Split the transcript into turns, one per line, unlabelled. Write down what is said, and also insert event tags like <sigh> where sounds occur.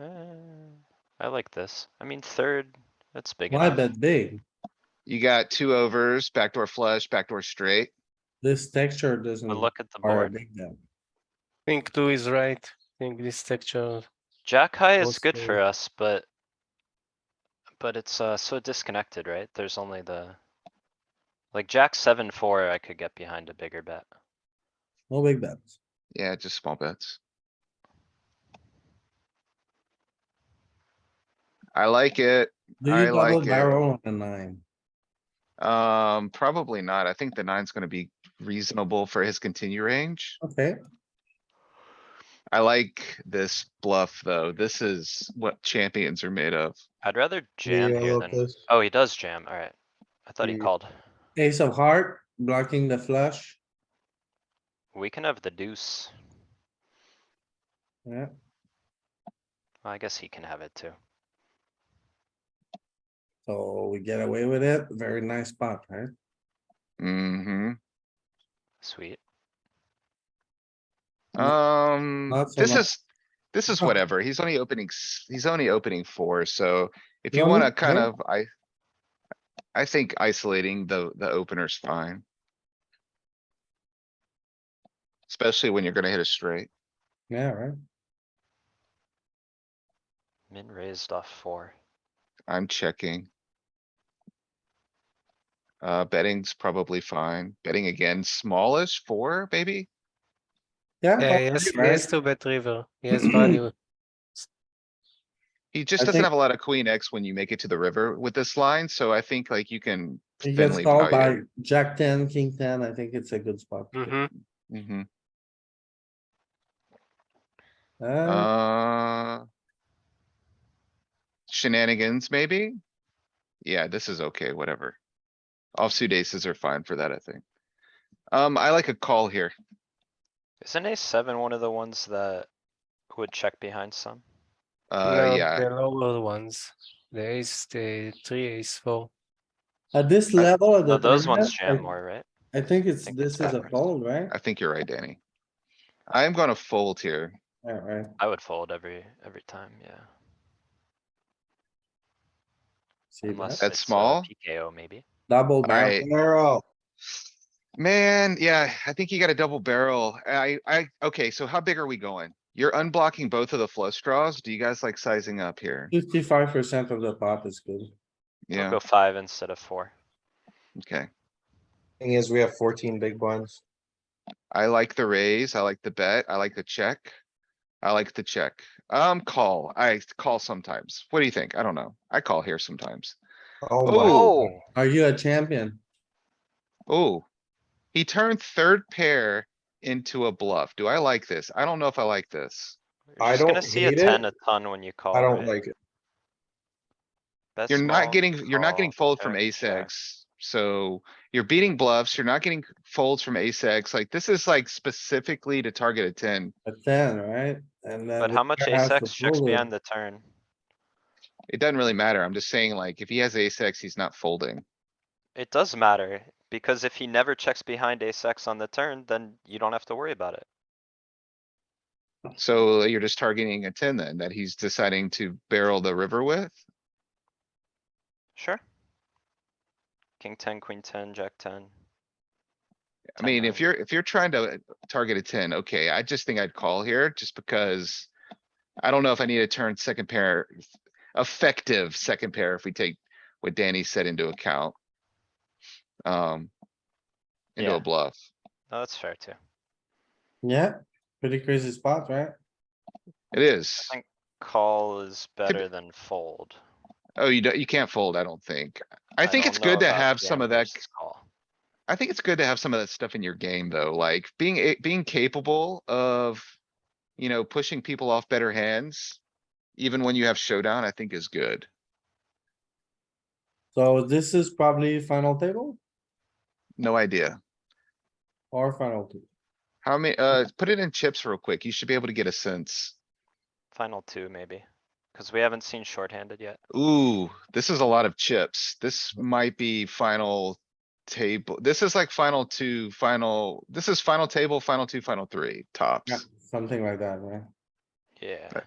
Uh, I like this. I mean, third, that's big
Why
enough.
bet big?
You got two overs, backdoor flush, backdoor straight.
This texture doesn't.
But look at the
require a
board.
big bet.
think two is right. I think this texture.
Jack high is
Most
good for us, but. But it's uh so disconnected, right? There's only the. Like jack seven, four, I could get behind a bigger bet.
No big bets.
Yeah, just small bets. I like it.
Do
I
you double
like it.
barrel on the nine?
Um, probably not. I think the nine's gonna be reasonable for his continue range.
Okay,
I like this bluff, though. This is what champions are made of.
I'd rather jam here than, oh, he does jam, alright. I thought he
Mm.
called.
ace of heart blocking the flush.
We can have the deuce.
Yeah,
Well, I guess he can have it too.
so we get away with it. Very nice spot, right?
hmm
Sweet.
Um,
Not so
this
much.
is, this is
Oh.
whatever. He's only opening, s- he's only opening four, so if you
Yeah,
wanna
we-
kind
yeah.
of, I. I think isolating the, the opener's fine. Especially when you're gonna hit a straight.
Yeah, right?
Min raised off four.
I'm checking. Uh, betting's probably fine. Betting again, smallish four, maybe?
Yeah.
Yeah,
probably,
yes,
right?
yes, two bet river.
<clears throat>
Yes, value.
He just
I
doesn't
think-
have a lot of queen X when you make it to the river with this line, so I think like you can
He gets
thinly
called
value.
by jack ten, king ten. I think it's a good spot.
Mm-hmm.
hmm
it. Mhm.
Uh,
Uh. Shenanigans, maybe? Yeah, this is okay, whatever. Offsuit aces are fine for that, I think. Um, I like a call here.
Isn't ace seven one of the ones that would check behind some?
Uh, yeah,
The lower ones, the ace, the three, ace, four.
Uh, At this level of
No,
the.
those ones
tournament,
jam more, right?
I I think it's,
think
this
it's
is a
better.
fold, right?
I think you're right, Danny. I am gonna fold here.
Yeah, right.
I would fold every, every time, yeah.
See
Unless
that?
That's
it's a
small.
PKO maybe.
Double
I-
barrel.
Man, yeah, I think you got a double barrel. I, I, okay, so how big are we going? You're unblocking both of the flush draws. Do you guys like sizing up here?
Fifty-five percent of the pot is good.
I'll
Yeah,
go five instead of four.
okay.
Thing is, we have fourteen big blinds.
I like the raise. I like the bet. I like the check. I like the check. Um, call. I call sometimes. What do you think? I don't know. I call here sometimes.
Oh my,
Oh,
Are you a champion?
oh. He turned third pair into a bluff. Do I like this? I don't know if I like this.
You're
I
just gonna
don't
see a
hate it.
ten a ton when you call,
I don't
right?
like it.
Bet
You're
small,
not getting, you're not
call,
getting folded from
check,
ace
check.
X. So you're beating bluffs. You're not getting folds from ace X. Like this is like specifically to target a ten.
A ten, right? And then.
But
the
how much
pair
ace
has to
X checks
fold it.
behind the turn?
It doesn't really matter. I'm just saying like if he has ace X, he's not folding.
It does matter, because if he never checks behind ace X on the turn, then you don't have to worry about it.
So you're just targeting a ten then that he's deciding to barrel the river with?
Sure. King ten, queen ten, jack ten.
I mean, if
Definitely.
you're, if you're trying to uh, target a ten, okay, I just think I'd call here just because. I don't know if I need to turn second pair, effective second pair if we take what Danny said into account. Um. Into
Yeah.
a bluff.
No, that's fair too.
Yeah, pretty crazy spot, right?
It is.
think- Call is better than fold.
Oh, you don't, you can't fold, I don't think. I think
don't
it's
know
good to
about
have some
jam
of that
versus Call.
I think it's good to have some of that stuff in your game, though, like being, a- being capable of, you know, pushing people off better hands. Even when you have showdown, I think is good.
So this is probably final table
No idea.
or final two?
How many, uh, put it in chips real quick. You should be able to get a sense.
Final two maybe, cuz we haven't seen shorthanded yet.
Ooh, this is a lot of chips. This might be final table. This is like final two, final, this is final table, final two, final three,
Yeah,
tops.
something like that, right?
Yeah.